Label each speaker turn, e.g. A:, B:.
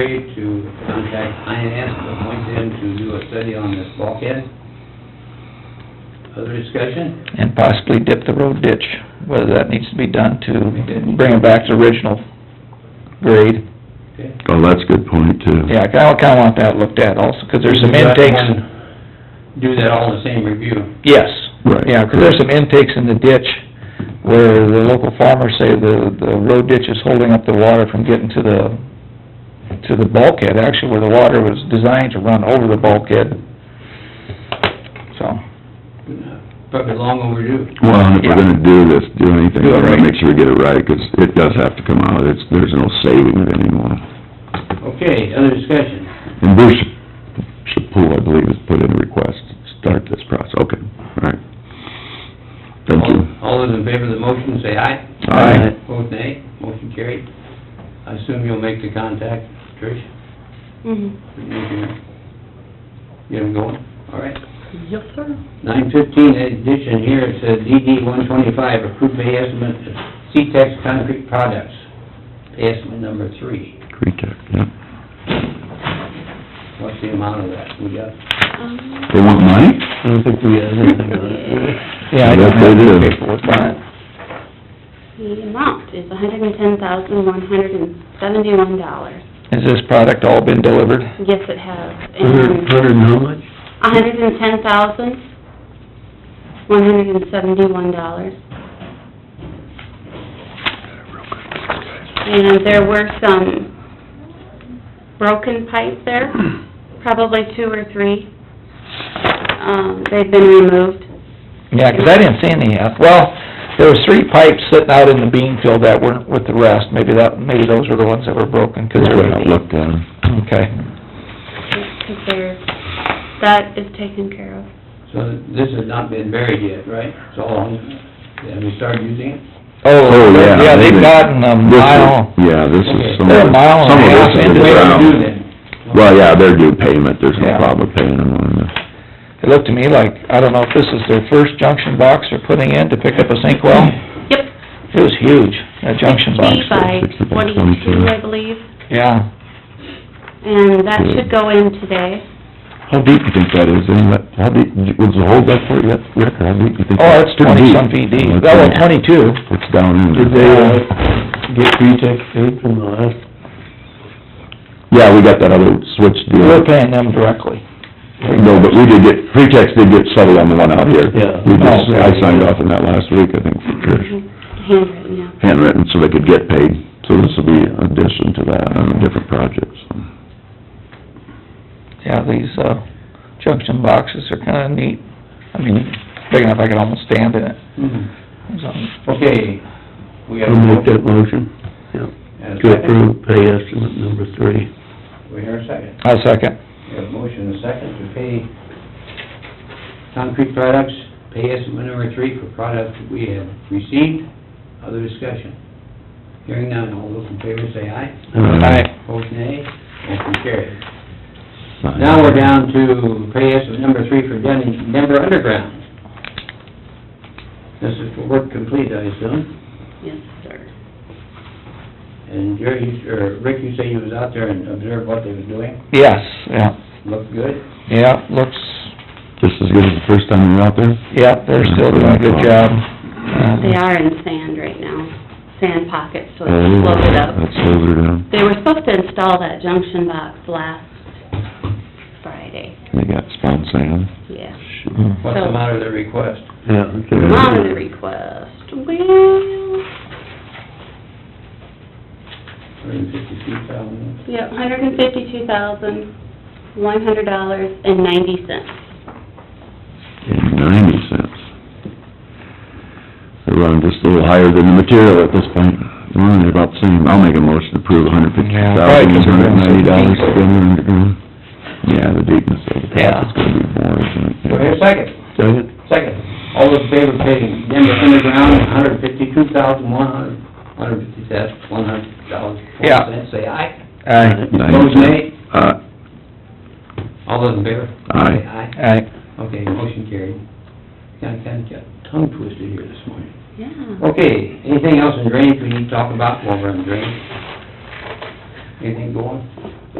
A: Ready to contact INS to appoint them to do a study on this bulkhead. Other discussion?
B: and possibly dip the road ditch, whether that needs to be done to bring it back to original grade.
A: Okay.
C: Oh, that's a good point, too.
B: Yeah, I kinda, kinda want that looked at also, 'cause there's some
A: Do that
B: intakes.
A: one- Do that all in the same review.
B: Yes.
C: Right.
B: Yeah, 'cause there's some intakes in the ditch where the local farmers say the, the road ditch is holding up the water from getting to the, to the bulkhead, actually where the water was designed to run over the bulkhead. So,
A: Probably long overdue.
C: Well, and if we're gonna do this, do
B: Do
C: anything, we
B: it
C: wanna
B: right.
C: make sure we get it right, 'cause it does have to come out, it's, there's no saving it anymore.
A: Okay, other discussion?
C: And Bruce Chapoul, I believe, has put in a request to start this process, okay, all right. Thank you.
A: All- All those in favor of the motion, say aye.
C: Aye.
A: Vote nay, motion carried. I assume you'll make the contact, Trish? Mm-hmm. Get them going, all right.
D: Yes, sir.
A: Nine fifteen, addition here, it says DD one twenty-five, approved pay estimate of C-Tex Concrete Products, pay estimate number three.
C: Cretek, yeah.
A: What's the amount of that? We got,
D: Um,
C: They want money?
E: I don't think we have anything on it.
B: yeah, I
C: Yes,
B: don't
C: they
B: have any
C: do.
B: paperwork on it.
D: The amount is hundred and ten thousand, one hundred and seventy-one dollars.
B: Has this product all been delivered?
D: Yes, it has.
E: Hundred,
D: And
E: hundred and how much?
D: hundred and ten thousand, one hundred and seventy-one dollars. And there were some broken pipe there, probably two or three. Um, they've been removed.
B: Yeah, 'cause I didn't see any, uh, well, there was three pipes sitting out in the bean field that weren't with the rest, maybe that, maybe those were the ones that were broken, 'cause
C: Just
B: there
C: went out,
B: were...
C: looked at 'em.
B: Okay,
D: Because they're, that is taken care of.
A: so this has not been buried yet, right? So, have we started using it?
B: oh,
C: Oh, yeah.
B: yeah,
C: they
B: they've
C: did.
B: gotten um, a
C: This is-
B: mile,
C: Yeah, this
A: Okay.
C: is some of,
B: They're a
C: some
B: mile
E: Oh,
B: and a half
C: of this is
B: into
C: in
B: it.
C: the
A: Way to do
C: ground.
A: then.
C: Well, yeah, they're due payment, there's no
B: Yeah.
C: problem paying them on this.
B: it looked to me like, I don't know if this is their first junction box they're putting in to pick up a sink well,
D: Yep.
B: it was huge, that junction box,
D: Be by
C: sixty by
D: twenty-two,
C: 22.
D: I believe,
B: yeah.
D: and that should go in today.
C: How deep you think that is, inlet, how deep, was the hole that for you, that, Rick, how deep you think?
B: Oh, that's
C: Pretty
B: twenty-some feet deep,
C: That's
B: that was
C: it.
B: twenty-two,
C: It's down in
E: Did
C: there.
E: they, uh, get pretext paid from the last?
C: Yeah, we got that other switch deal.
B: we're paying them directly.
C: No, but we did get, pretext did get settled on the one out here.
E: Yeah. Oh,
C: We just, I signed off on that last week, I think, for Trish,
D: Handwritten, yeah.
C: handwritten, so they could get paid. So this will be an addition to that on a different project, so.
B: Yeah, these, uh, junction boxes are kinda neat, I mean, big enough I could almost stand in it.
A: Mhm.
B: So,
A: Okay, we have.
E: I'll make that motion.
A: And a
E: To
A: second.
E: approve pay estimate number three.
A: We hear a second.
B: I'll second.
A: We have motion and a second to pay concrete products, pay estimate number three for products that we have received. Other discussion? Hearing none, all those in favor say aye. Opposed, nay. Motion carried. Now we're down to pay estimate number three for Den- Denver Underground. This is for work complete, I assume.
D: Yes, sir.
A: And Jerry, you- or Rick, you say you was out there and observed what they was doing?
B: Yes, yeah,
A: Looked good?
B: yeah, looks,
C: Just as good as the first time we were out there?
B: yeah, they're still doing a good job. Um,
D: They are in sand right now, sand pockets, so it's
C: Oh,
D: floated up.
C: That's loaded up.
D: They were supposed to install that junction box last Friday,
C: They got spawn sand.
D: yeah.
A: What's the matter with the request?
E: Yeah.
D: Amount of the request, well,
A: Hundred and fifty-two thousand.
D: yeah, hundred and fifty-two thousand, one hundred dollars and ninety cents.
C: and ninety cents. They're running just a little higher than the material at this point. They're running about the same. I'll make a motion to approve a hundred fifty
B: Yeah,
C: thousand,
B: probably 'cause
C: one
B: we're
C: hundred
B: gonna
C: ninety
B: see
C: dollars
B: deeper.
C: to go in underground. Yeah, the deepness of the
B: Yeah.
C: pipe is gonna be more, isn't it?
A: Do I hear a second?
C: Second.
A: Second. All those in favor of paying Denver Underground, hundred fifty-two thousand, one hundred, hundred fifty cents, one hundred dollars, four
B: Yeah.
A: cents, say aye.
B: Aye,
A: Opposed, nay.
C: Uh,
A: All those in favor?
C: Aye.
A: Say Aye.
B: aye.
A: Okay, motion carried. Kind of, kind of got tongue twisted here this morning.
D: Yeah.
A: Okay, anything else in drainage we need to talk about while we're in drainage? Anything going?